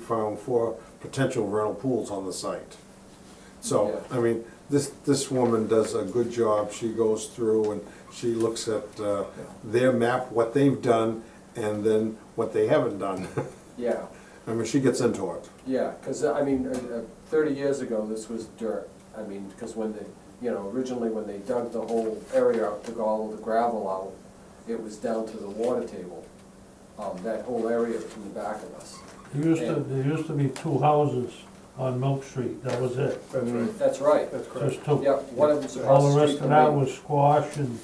found four potential rental pools on the site. So, I mean, this, this woman does a good job, she goes through and she looks at uh, their map, what they've done, and then what they haven't done. Yeah, I mean, she gets into it. yeah, because, I mean, uh, uh, thirty years ago, this was dirt. I mean, because when they, you know, originally when they dug the whole area out, took all the gravel out, it was down to the water table, um, that whole area from the back of us. There used to, there used to be two houses on Milk Street, that was it, That's right, That's right. that's correct. just two. Yep, one of them's across All the the rest street of from that me. was squash and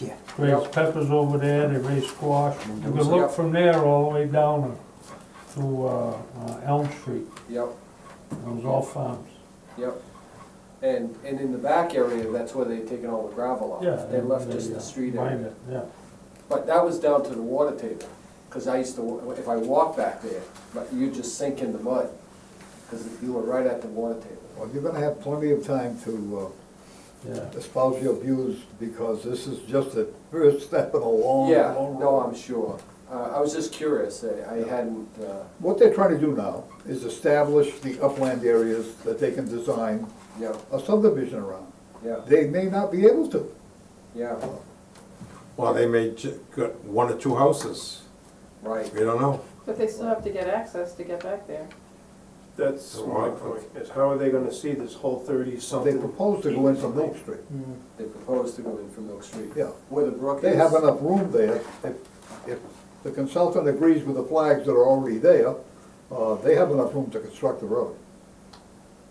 Yeah. raised peppers over there, they raised squash. You could Yep. look from there all the way down to uh, uh, Elm Street, Yep, it was all farms. yep. And, and in the back area, that's where they'd taken all the gravel Yeah. out. They left just uh, the street mined area. it, Yeah, But that was down to the water table, because I used to, wa- if I walked back there, but you just sink in the mud, because you were right at the water table. Well, you're gonna have plenty of time to yeah. uh, espouse your views, because this is just the first step in a long, Yeah, long no, road. I'm sure. Uh, I was just curious, I I hadn't, uh, What they're trying to do now is establish the upland areas that they can design yeah, a subdivision around. yeah, They may not be able to. yeah, Well, they may ju- got one or two houses, right, we don't know. But they still have to get access to get back there. That's my point, is how are they gonna see this whole They thirty-something? propose to go into Milk Street. they proposed to go in from Milk Street. Yeah. Where the brook is. They have enough room there. If, if the consultant agrees with the flags that are already there, uh, they have enough room to construct the road.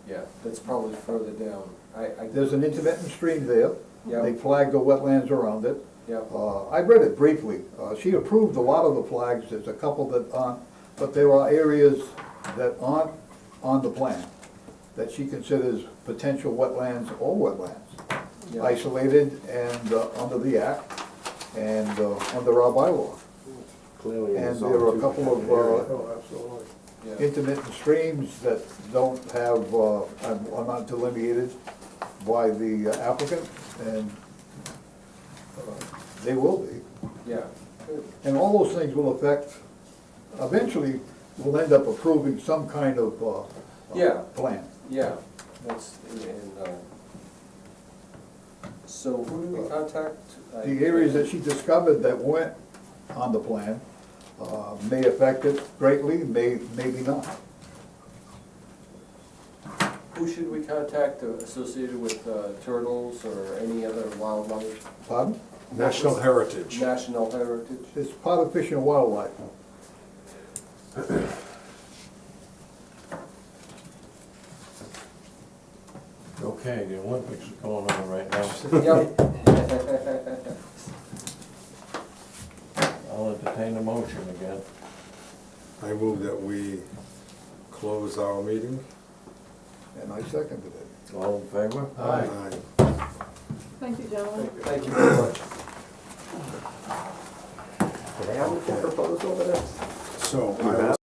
Yeah, that's probably further down. I, I, There's an intermittent stream there. Yeah. They flagged the wetlands around it. yeah, Uh, I read it briefly. Uh, She approved a lot of the flags, there's a couple that aren't, but there are areas that aren't on the plan that she considers potential wetlands or wetlands, yeah. isolated and uh, under the act and uh, under our bylaw. Clearly, And there are a couple of uh, Oh, absolutely. Yeah, intermittent streams that don't have, uh, are are not delineated by the applicant, and uh, they will be. yeah, And all those things will affect, eventually, we'll end up approving some kind of, uh, uh, Yeah. Plan. yeah, that's, and, uh, so who did we contact? I- Uh, The areas that she discovered that weren't on the plan, uh, may affect it greatly, may, maybe not. Who should we contact uh, associated with uh, turtles or any other wildlife, Pardon? National heritage. national heritage? It's part of Fish and Wildlife. Okay, the Olympics are going on right now. Yep. I'll entertain a motion again. I move that we close our meeting. And I seconded it. All in favor? Aye. Thank you, gentlemen. Thank you very much. So I will